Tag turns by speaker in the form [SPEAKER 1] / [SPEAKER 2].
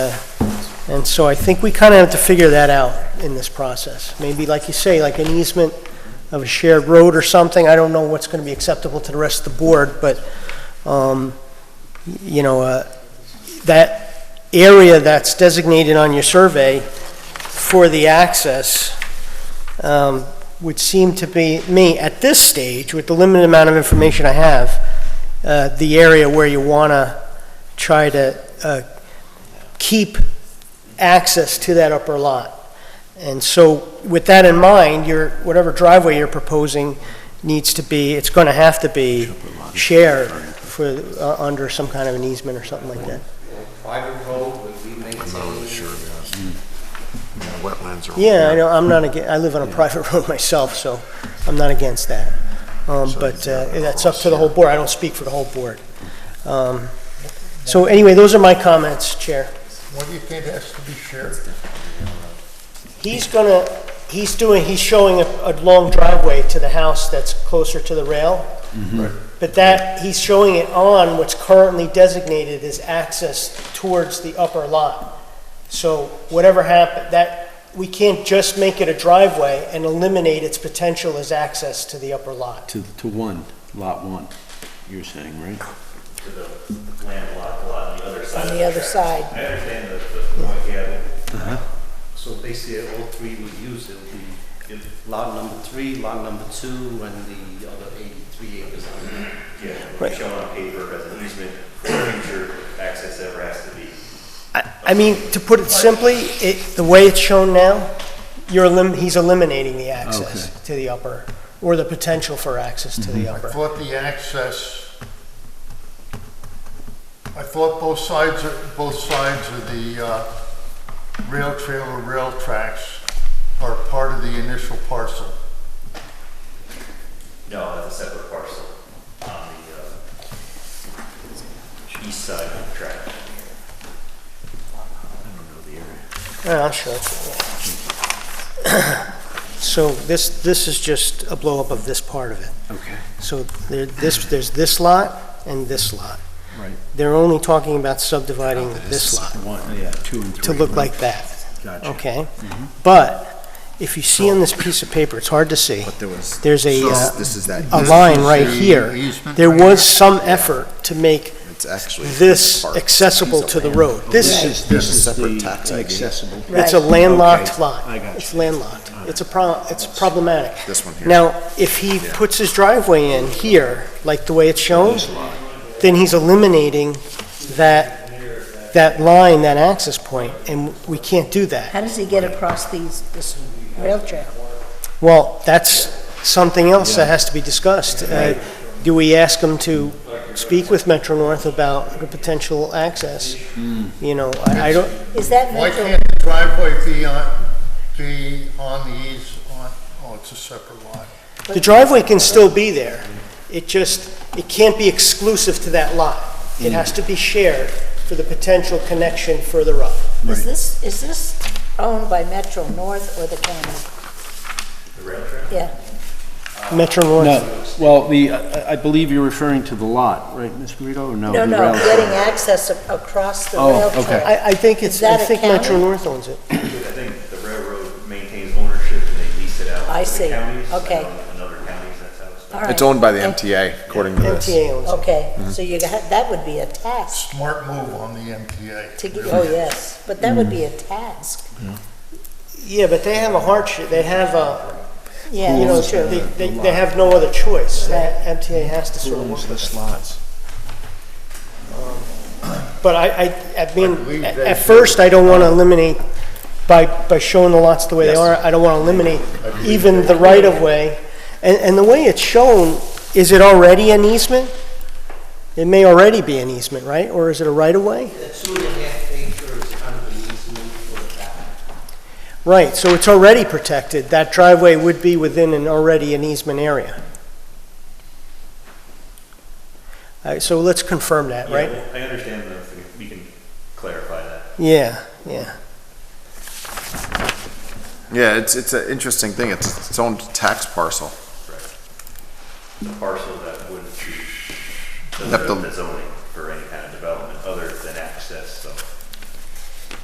[SPEAKER 1] And so I think we kind of have to figure that out in this process. Maybe, like you say, like an easement of a shared road or something, I don't know what's going to be acceptable to the rest of the board, but, um, y- you know, uh, that area that's designated on your survey for the access um, would seem to be, me, at this stage, with the limited amount of information I have, uh, the area where you want to try to uh, keep access to that upper lot. And so with that in mind, your, whatever driveway you're proposing needs to be, it's going to have to be shared for, uh, under some kind of an easement or something like that.
[SPEAKER 2] private road, would we maintain?
[SPEAKER 3] Hmm. Wetlands are.
[SPEAKER 1] Yeah, I know, I'm not, aga- I live on a private road myself, so I'm not against that. Um, But uh, that's up to the whole board, I don't speak for the whole board. Um, So anyway, those are my comments, Chair.
[SPEAKER 4] What do you think has to be shared?
[SPEAKER 1] He's gonna, he's doing, he's showing a, a long driveway to the house that's closer to the rail.
[SPEAKER 4] Mm-hmm.
[SPEAKER 1] But that, he's showing it on what's currently designated as access towards the upper lot. So whatever happened, that, we can't just make it a driveway and eliminate its potential as access to the upper lot.
[SPEAKER 5] To, to one, lot one, you're saying, right?
[SPEAKER 2] Landlocked lot on the other side.
[SPEAKER 6] on
[SPEAKER 2] of
[SPEAKER 6] the other
[SPEAKER 2] tracks.
[SPEAKER 6] side.
[SPEAKER 2] I understand the, the point, yeah. So basically, all three would use it, would be lot number three, lot number two, and the other eighty-three acres.
[SPEAKER 1] Right.
[SPEAKER 2] Yeah, shown on paper as an easement, future access ever has to be.
[SPEAKER 1] I, I mean, to put it simply, it, the way it's shown now, you're elim, he's eliminating the access to the upper, or the potential for access to the upper.
[SPEAKER 4] I thought the access, I thought both sides, of- both sides of the uh, rail trail or rail tracks are part of the initial parcel.
[SPEAKER 2] No, that's a separate parcel on the, uh, east side of the track.
[SPEAKER 1] Yeah, I'm sure. So this, this is just a blow-up of this part of it.
[SPEAKER 5] Okay.
[SPEAKER 1] So there, this, there's this lot and this lot.
[SPEAKER 5] Right.
[SPEAKER 1] They're only talking about subdividing this lot
[SPEAKER 5] One, yeah, two and three.
[SPEAKER 1] to look
[SPEAKER 5] right?
[SPEAKER 1] like that,
[SPEAKER 5] Gotcha.
[SPEAKER 1] okay? But if you see on this piece of paper, it's hard to see,
[SPEAKER 3] But there was.
[SPEAKER 1] there's a,
[SPEAKER 3] This-
[SPEAKER 1] uh,
[SPEAKER 3] This is that.
[SPEAKER 1] a
[SPEAKER 3] easement.
[SPEAKER 1] line right
[SPEAKER 4] the
[SPEAKER 1] here.
[SPEAKER 4] easement
[SPEAKER 1] There
[SPEAKER 4] right here?
[SPEAKER 1] was some effort to make
[SPEAKER 3] It's actually.
[SPEAKER 1] this
[SPEAKER 3] part.
[SPEAKER 1] accessible to the road.
[SPEAKER 5] This
[SPEAKER 1] This,
[SPEAKER 5] is, this is
[SPEAKER 3] Separate
[SPEAKER 5] the
[SPEAKER 3] tax ID.
[SPEAKER 5] accessible.
[SPEAKER 1] it's a
[SPEAKER 6] Right.
[SPEAKER 1] landlocked
[SPEAKER 5] Okay,
[SPEAKER 1] lot.
[SPEAKER 5] I got
[SPEAKER 1] It's
[SPEAKER 5] you.
[SPEAKER 1] landlocked. It's a pro, it's problematic.
[SPEAKER 3] This one here.
[SPEAKER 1] Now, if he puts his driveway in here, like the way it's shown, then he's eliminating that, that line, that access point, and we can't do that.
[SPEAKER 6] How does he get across these, this rail trail?
[SPEAKER 1] Well, that's something else that has to be discussed. Uh, Do we ask him to speak with Metro North about the potential access?
[SPEAKER 5] Hmm.
[SPEAKER 1] You know, I I don't,
[SPEAKER 6] Is that
[SPEAKER 4] Why
[SPEAKER 6] mental?
[SPEAKER 4] can't the driveway be on, be on the eas, on, oh, it's a separate lot.
[SPEAKER 1] the driveway can still be there. It just, it can't be exclusive to that lot. It has to be shared for the potential connection further up.
[SPEAKER 6] Is this, is this owned by Metro North or the county?
[SPEAKER 2] The rail trail?
[SPEAKER 6] Yeah,
[SPEAKER 1] Metro North.
[SPEAKER 5] No, well, the, I I believe you're referring to the lot, right, Ms. Guido, or no?
[SPEAKER 6] no,
[SPEAKER 5] the
[SPEAKER 6] no,
[SPEAKER 5] rail trail?
[SPEAKER 6] getting access a- across the
[SPEAKER 5] Oh,
[SPEAKER 6] rail
[SPEAKER 5] okay.
[SPEAKER 6] trail.
[SPEAKER 1] I, I think it's,
[SPEAKER 6] Is
[SPEAKER 1] I
[SPEAKER 6] that a
[SPEAKER 1] think Metro
[SPEAKER 6] county?
[SPEAKER 1] North owns it.
[SPEAKER 2] I think the railroad maintains ownership and they lease it out
[SPEAKER 6] I
[SPEAKER 2] to
[SPEAKER 6] see.
[SPEAKER 2] the counties.
[SPEAKER 6] Okay.
[SPEAKER 2] and Another counties, that's how it's done.
[SPEAKER 6] All
[SPEAKER 3] It's
[SPEAKER 6] right.
[SPEAKER 3] owned by the MTA, according to this.
[SPEAKER 1] MTA owns it.
[SPEAKER 6] Okay,
[SPEAKER 5] Mm-hmm.
[SPEAKER 6] so you, got- that would be a task
[SPEAKER 4] Smart move on the MTA.
[SPEAKER 6] to, get-
[SPEAKER 4] really.
[SPEAKER 6] oh, yes, but that would be a task.
[SPEAKER 1] Yeah, but they have a hardship, they have a,
[SPEAKER 6] Yeah,
[SPEAKER 1] you know,
[SPEAKER 6] that's
[SPEAKER 1] they,
[SPEAKER 6] true.
[SPEAKER 1] they they have no other choice. That MTA has to sort of work with it. Um,
[SPEAKER 5] Lots.
[SPEAKER 1] But I, I, I mean,
[SPEAKER 4] believe
[SPEAKER 1] at
[SPEAKER 4] they
[SPEAKER 1] at
[SPEAKER 4] should.
[SPEAKER 1] first, I don't want to eliminate, by, by showing the lots the way they are, I don't want to eliminate even the right-of-way. And, and the way it's shown, is it already an easement? It may already be an easement, right? Or is it a right-of-way?
[SPEAKER 7] The two and a half acres under the easement for the back.
[SPEAKER 1] Right, so it's already protected. That driveway would be within an already an easement area. All right, so let's confirm that,
[SPEAKER 2] Yeah,
[SPEAKER 1] right?
[SPEAKER 2] well, I understand that, we can clarify that.
[SPEAKER 1] Yeah, yeah.
[SPEAKER 3] Yeah, it's, it's an interesting thing. It's its own tax parcel.
[SPEAKER 2] The parcel that wouldn't be,
[SPEAKER 3] Have to-
[SPEAKER 2] the zoning.